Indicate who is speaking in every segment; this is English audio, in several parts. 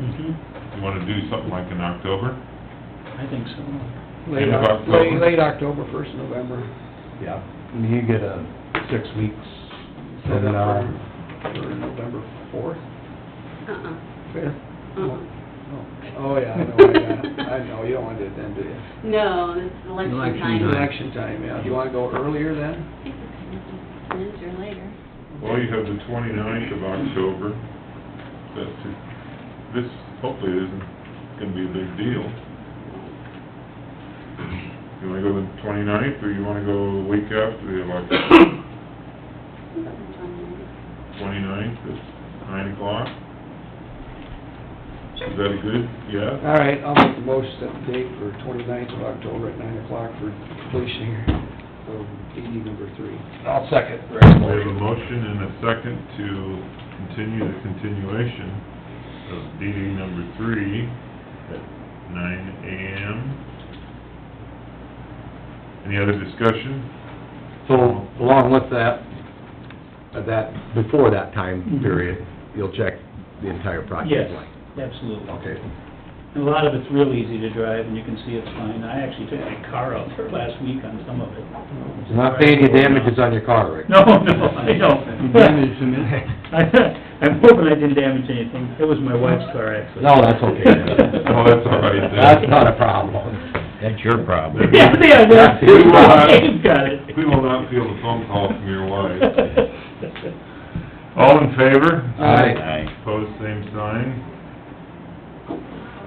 Speaker 1: Mm-hmm.
Speaker 2: You wanna do something like in October?
Speaker 3: I think so.
Speaker 4: Late,
Speaker 2: End of
Speaker 4: Oc-
Speaker 2: October.
Speaker 4: late, late October, first November.
Speaker 1: Yeah, and you get a six weeks
Speaker 4: Set up
Speaker 1: from now.
Speaker 4: for- For November fourth,
Speaker 5: Uh-uh.
Speaker 4: fifth?
Speaker 5: Uh-uh.
Speaker 4: Oh, yeah, I know, I got it. I know, you don't want to do it then, do you?
Speaker 5: No, it's election
Speaker 3: Election
Speaker 5: time.
Speaker 3: night.
Speaker 4: Election time, yeah, do you want to go earlier
Speaker 5: I
Speaker 4: then?
Speaker 5: think it's Minutes or later.
Speaker 2: Well, you have the 29th of October, that's, it. this hopefully isn't gonna be a big deal. You wanna go the 29th or you wanna go the week after the election? Twenty-ninth at nine o'clock? Is that a good, yeah?
Speaker 1: Uh,
Speaker 4: All right, I'll make the motion set the date for 29th of October at nine o'clock for completion here of DD number three.
Speaker 1: I'll second.
Speaker 2: We have a motion and a second to continue the continuation of DD number three at nine AM. Any other discussion?
Speaker 1: So along with that, uh, that, before that time
Speaker 3: Mhm.
Speaker 1: period, you'll check the entire
Speaker 3: Yes,
Speaker 1: project line?
Speaker 3: absolutely.
Speaker 1: Okay.
Speaker 3: A lot of it's real easy to drive, and you can see it's fine. I actually took my car out there last week on some of it.
Speaker 1: So Not paying any damages on your car, Rick?
Speaker 3: No, no, I don't.
Speaker 4: Damage to me.
Speaker 3: I- I'm hoping I didn't damage anything. It was my wife's car, actually.
Speaker 1: No, that's okay.
Speaker 2: No, that's all right then.
Speaker 1: That's not a problem.
Speaker 6: That's your problem.
Speaker 3: Yeah, yeah, that's,
Speaker 1: We will
Speaker 2: not-
Speaker 3: Dave's got it.
Speaker 2: We will not feel the phone call from your wife. All in favor?
Speaker 4: Aye.
Speaker 6: Aye.
Speaker 2: Opposed, same sign.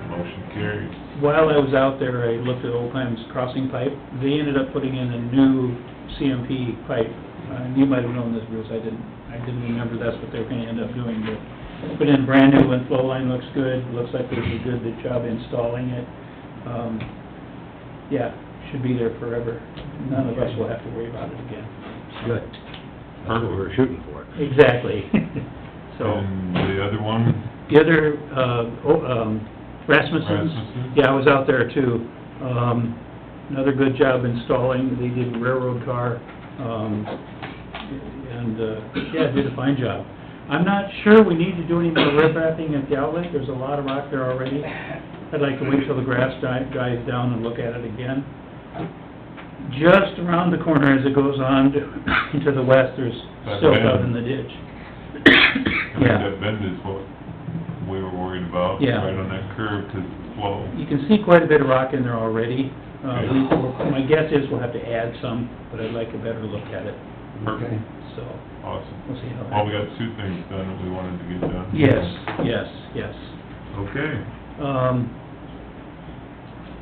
Speaker 2: Motion carries.
Speaker 3: While I was out there, I looked at Old Times Crossing Pipe. They ended up putting in a new CMP pipe. Uh, You might have known this, Bruce, I didn't, I didn't remember that's what they were gonna end up doing, but put in brand new one, flow line looks good, looks like they did a good job installing it. Um, Yeah, should be there forever. None of us will have to worry about it again.
Speaker 1: Good. That's what we we're shooting for.
Speaker 3: Exactly. So,
Speaker 2: And the other one?
Speaker 3: the other, uh, oh, um, Rasmussen's,
Speaker 2: Rasmussen?
Speaker 3: yeah, I was out there too. Um, another good job installing, they did railroad car, um, and, uh, yeah, did a fine job. I'm not sure we need to do any more rip wrapping at the outlet, there's a lot of rock there already. I'd like to wait till the grass di- dies down and look at it again. Just around the corner as it goes on to- to the west, there's
Speaker 2: That
Speaker 3: silt out
Speaker 2: bend.
Speaker 3: in the ditch.
Speaker 2: I think
Speaker 3: Yeah.
Speaker 2: that bend is what we were worried about,
Speaker 3: Yeah.
Speaker 2: right on that curve to the flow.
Speaker 3: You can see quite a bit of rock in there already. Uh, we- we'll- My guess is we'll have to add some, but I'd like a better look at it,
Speaker 2: Perfect,
Speaker 4: Okay.
Speaker 3: so
Speaker 2: awesome.
Speaker 3: we'll see how
Speaker 2: Well, we
Speaker 3: that...
Speaker 2: got two things done that we wanted to get done.
Speaker 3: Yes, yes, yes.
Speaker 2: Okay,
Speaker 3: Um,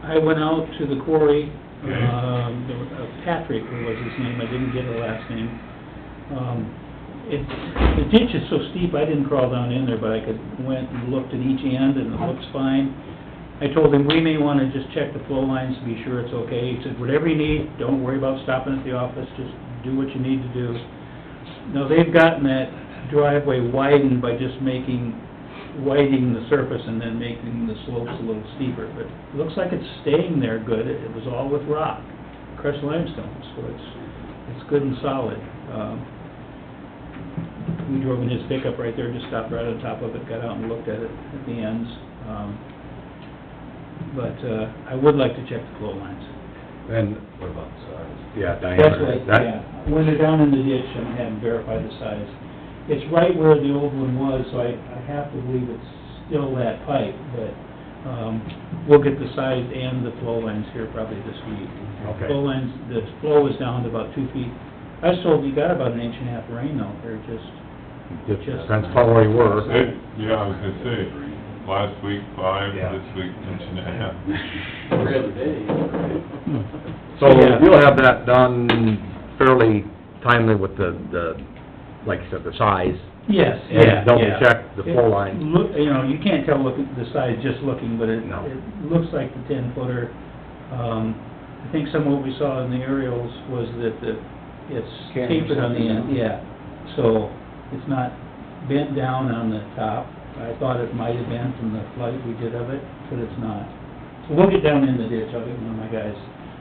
Speaker 3: I went out to the quarry,
Speaker 2: Okay.
Speaker 3: um, there was- uh, Patrick was his name, I didn't get the last name. Um, It, the ditch is so steep, I didn't crawl down in there, but I could, went and looked at each end, and it looks fine. I told him, we may want to just check the flow lines to be sure it's okay. He said, whatever you need, don't worry about stopping at the office, just do what you need to do. Now, they've gotten that driveway widened by just making, widening the surface and then making the slopes a little steeper, but it looks like it's staying there good. It was all with rock, crushed limestone, so it's, it's good and solid. Um, We drove in his pickup right there, just stopped right on top of it, got out and looked at it at the ends. Um, But uh, I would like to check the flow lines.
Speaker 1: And what about size? Yeah,
Speaker 3: That's
Speaker 1: diameter.
Speaker 3: right,
Speaker 1: That-
Speaker 3: yeah. When they're down in the ditch, I'm having verified the size. It's right where the old one was, so I, I have to believe it's still that pipe, but, um, we'll get the size and the flow lines here probably this week.
Speaker 1: Okay.
Speaker 3: Flow lines, the flow is down to about two feet. I was told you got about an inch and a half rain out there, just,
Speaker 1: Just- That's probably where you were.
Speaker 2: Hey, yeah, I was gonna say, last week five,
Speaker 1: Yeah.
Speaker 2: this week inch and a half.
Speaker 4: Every other day.
Speaker 2: Hmm.
Speaker 1: So
Speaker 3: Yeah.
Speaker 1: you'll have that done fairly timely with the, the, like you said, the size.
Speaker 3: yes,
Speaker 1: And
Speaker 3: yeah, yeah.
Speaker 1: double check the flow
Speaker 3: It
Speaker 1: line.
Speaker 3: Look, you know, you can't tell looking, the size just looking, but it,
Speaker 1: No.
Speaker 3: it looks like the ten footer. Um, I think some of what we saw in the aerials was that the, it's
Speaker 4: Can't
Speaker 3: tapered on the
Speaker 4: something
Speaker 3: end,
Speaker 4: down.
Speaker 3: yeah. So it's not bent down on the top. I thought it might have been from the flight we did of it, but it's not. So we'll get down in the ditch. I'll get one of my guys,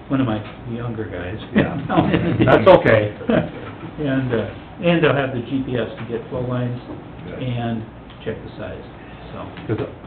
Speaker 3: one of my younger guys.
Speaker 1: Yeah.
Speaker 3: down in the ditch.
Speaker 1: That's okay.
Speaker 3: And, uh, and they'll have the GPS to get flow lines and check the size, so.
Speaker 1: Cause